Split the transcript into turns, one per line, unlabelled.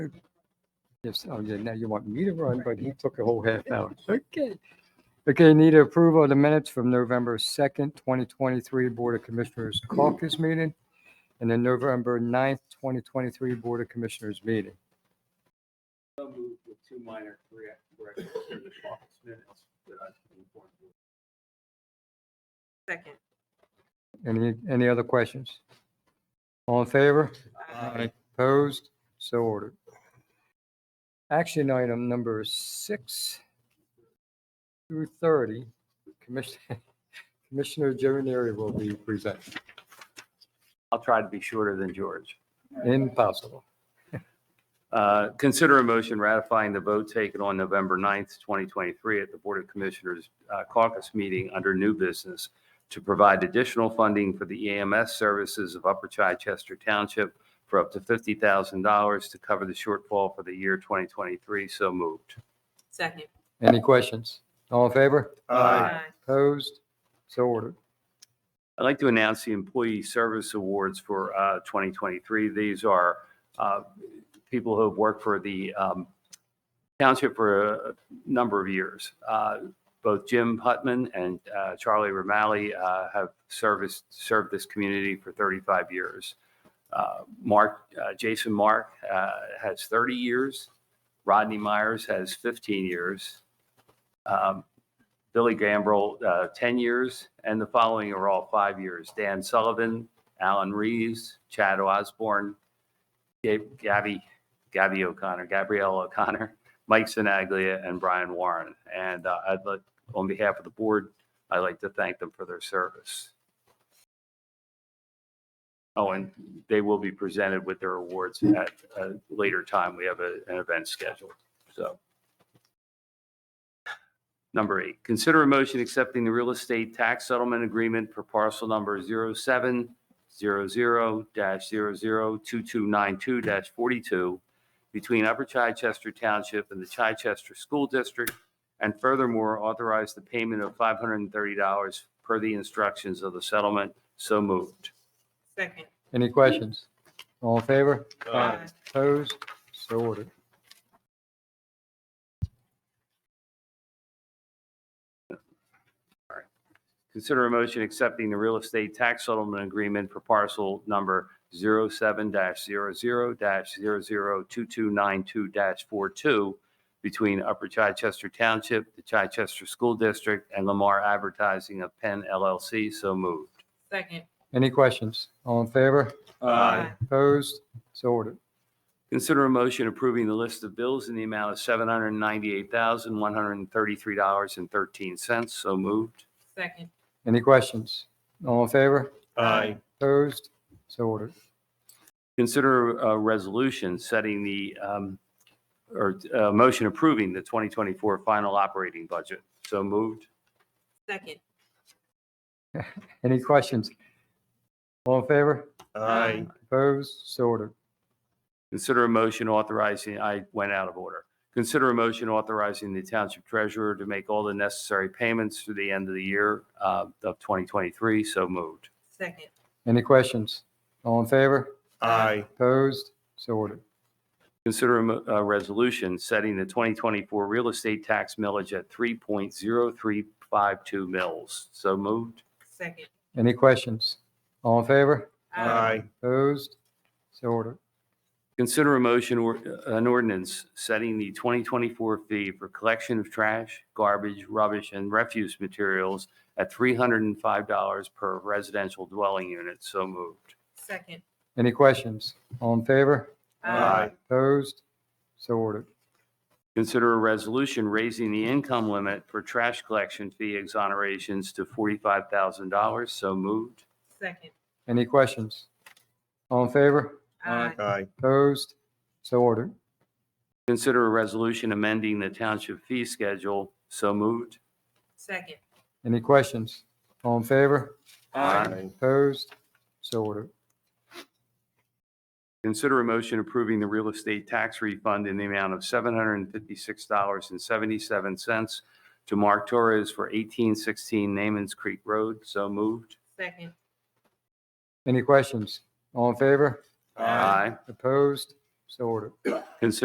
Yes, oh yeah, now you want me to run, but he took a whole half hour. Okay. Okay, need approval of the minutes from November 2nd, 2023 Board of Commissioners caucus meeting and then November 9th, 2023 Board of Commissioners meeting.
So moved with two minor correct- corrections to the caucus minutes that I've been informed of.
Second.
Any, any other questions? All in favor?
Aye.
Opposed? So ordered. Action item number six through 30, Commissioner, Commissioner Jerry Neary will be presenting.
I'll try to be shorter than George.
Impossible.
Uh, Consider a motion ratifying the vote taken on November 9th, 2023 at the Board of Commissioners uh, caucus meeting under new business to provide additional funding for the E EMS services of Upper Chichester Township for up to $50,000 to cover the shortfall for the year 2023. So moved.
Second.
Any questions? All in favor? Opposed? So ordered.
I'd like to announce the Employee Service Awards for uh, 2023. These are uh, people who have worked for the um, township for a number of years. Uh, Both Jim Hutman and uh, Charlie Romali uh, have serviced, served this community for 35 years. Uh, Mark, uh, Jason Mark uh, has 30 years. Rodney Myers has 15 years. Um, Billy Gambrell, uh, 10 years, and the following are all five years. Dan Sullivan, Alan Reeves, Chad Osborne, Gab- Gabby, Gabby O'Connor, Gabrielle O'Connor, Mike Sinaglia, and Brian Warren. And uh, I'd like, on behalf of the board, I'd like to thank them for their service. Oh, and they will be presented with their awards at a later time. We have a- an event scheduled, so. Number eight, consider a motion accepting the real estate tax settlement agreement for parcel number 0700-002292-42 between Upper Chichester Township and the Chichester School District, and furthermore authorize the payment of $530 per the instructions of the settlement. So moved.
Second.
Any questions? All in favor?
Aye.
Opposed? So ordered.
Consider a motion accepting the real estate tax settlement agreement for parcel number 07-00-002292-42 between Upper Chichester Township, the Chichester School District, and Lamar Advertising of Penn LLC. So moved.
Second.
Any questions? All in favor? Opposed? So ordered.
Consider a motion approving the list of bills in the amount of $798,133.13. So moved.
Second.
Any questions? All in favor?
Aye.
Opposed? So ordered.
Consider a resolution setting the, um, or a motion approving the 2024 final operating budget. So moved.
Second.
Any questions? All in favor?
Aye.
Opposed? So ordered.
Consider a motion authorizing, I went out of order. Consider a motion authorizing the township treasurer to make all the necessary payments through the end of the year uh, of 2023. So moved.
Second.
Any questions? All in favor?
Aye.
Opposed? So ordered.
Consider a mo- a resolution setting the 2024 real estate tax millage at 3.0352 mills. So moved.
Second.
Any questions? All in favor?
Aye.
Opposed? So ordered.
Consider a motion or uh, an ordinance setting the 2024 fee for collection of trash, garbage, rubbish, and refuse materials at $305 per residential dwelling unit. So moved.
Second.
Any questions? All in favor?
Aye.
Opposed? So ordered.
Consider a resolution raising the income limit for trash collection fee exonerations to $45,000. So moved.
Second.
Any questions? All in favor?
Aye.
Opposed? So ordered.
Consider a resolution amending the township fee schedule. So moved.
Second.
Any questions? All in favor?
Aye.
Opposed? So ordered.
Consider a motion approving the real estate tax refund in the amount of $756.77 to Mark Torres for 1816 Namens Creek Road. So moved.
Second.
Any questions? All in favor?
Aye.
Opposed?
So ordered.
Consider